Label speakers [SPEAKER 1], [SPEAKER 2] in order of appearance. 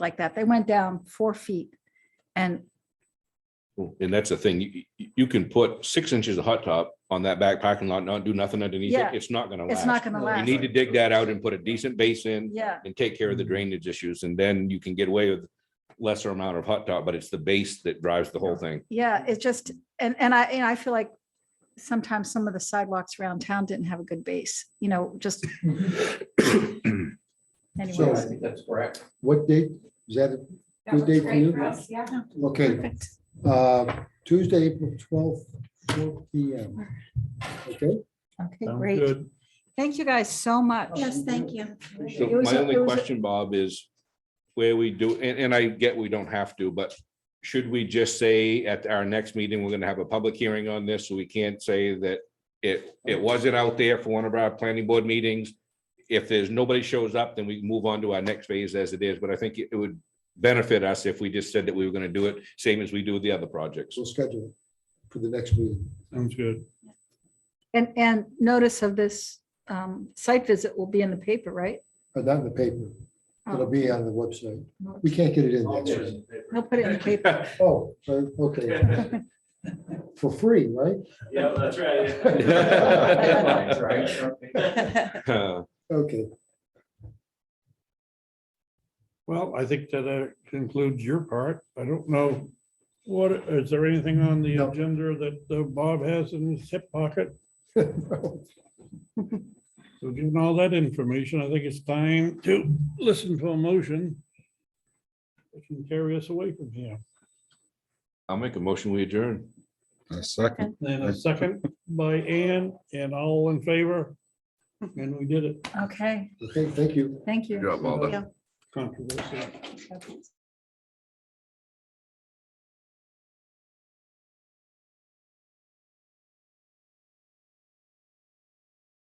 [SPEAKER 1] like that. They went down four feet. And
[SPEAKER 2] And that's the thing, you, you- you can put six inches of hot top on that back parking lot, not do nothing underneath it,
[SPEAKER 1] Yeah.
[SPEAKER 2] it's not gonna
[SPEAKER 1] it's not
[SPEAKER 2] last.
[SPEAKER 1] going to
[SPEAKER 3] You
[SPEAKER 2] Oh, You
[SPEAKER 1] last.
[SPEAKER 2] need to dig that out and put a decent base in
[SPEAKER 1] Yeah, Mm-hmm.
[SPEAKER 2] and take care of the drainage issues, and then you can get away with lesser amount of hot top, but it's the base that drives the whole thing.
[SPEAKER 1] yeah, it just, and, and I, and I feel like sometimes some of the sidewalks around town didn't have a good base, you know, just
[SPEAKER 3] So-
[SPEAKER 1] anyways.
[SPEAKER 3] I think that's correct.
[SPEAKER 4] What date? Is that, it?
[SPEAKER 5] That
[SPEAKER 4] Good
[SPEAKER 5] works
[SPEAKER 4] day for you?
[SPEAKER 5] great for us, yeah.
[SPEAKER 4] okay,
[SPEAKER 1] Perfect.
[SPEAKER 4] uh, Tuesday, April twelfth, four P M. Okay,
[SPEAKER 1] Okay,
[SPEAKER 3] Sounds
[SPEAKER 1] great.
[SPEAKER 3] good.
[SPEAKER 1] Thank you guys so much.
[SPEAKER 5] Yes, thank you.
[SPEAKER 2] So
[SPEAKER 1] It was
[SPEAKER 2] my
[SPEAKER 1] a- it
[SPEAKER 2] only
[SPEAKER 1] was a-
[SPEAKER 2] question, Bob, is where we do, and, and I get we don't have to, but should we just say at our next meeting, we're gonna have a public hearing on this, so we can't say that it, it wasn't out there for one of our planning board meetings? If there's, nobody shows up, then we can move on to our next phase as it is, but I think it it would benefit us if we just said that we were gonna do it, same as we do with the other projects.
[SPEAKER 4] so schedule it for the next meeting.
[SPEAKER 3] Sounds good.
[SPEAKER 1] And, and notice of this um, site visit will be in the paper, right? Um,
[SPEAKER 4] But Uh, not in the paper.
[SPEAKER 5] Oh.
[SPEAKER 4] It'll be on the website.
[SPEAKER 1] Oh,
[SPEAKER 4] We can't get it in next week.
[SPEAKER 1] He'll put it in the paper.
[SPEAKER 4] Oh, uh, okay, for free, right?
[SPEAKER 6] Yeah, that's
[SPEAKER 2] Uh,
[SPEAKER 4] Okay,
[SPEAKER 3] Well, I think that uh, concludes your part. I don't know, what, is there anything on the
[SPEAKER 4] No.
[SPEAKER 3] agenda that uh, Bob has in his hip pocket? So given all that information, I think it's time to listen to a motion. that can carry us away from here.
[SPEAKER 2] I'll make a motion, we adjourn.
[SPEAKER 7] A second.
[SPEAKER 3] Then a second by Ann and all in favor. And we did it.
[SPEAKER 1] Okay,
[SPEAKER 4] okay, thank you.
[SPEAKER 1] thank you.
[SPEAKER 7] Good job, Alden.
[SPEAKER 3] Controversy.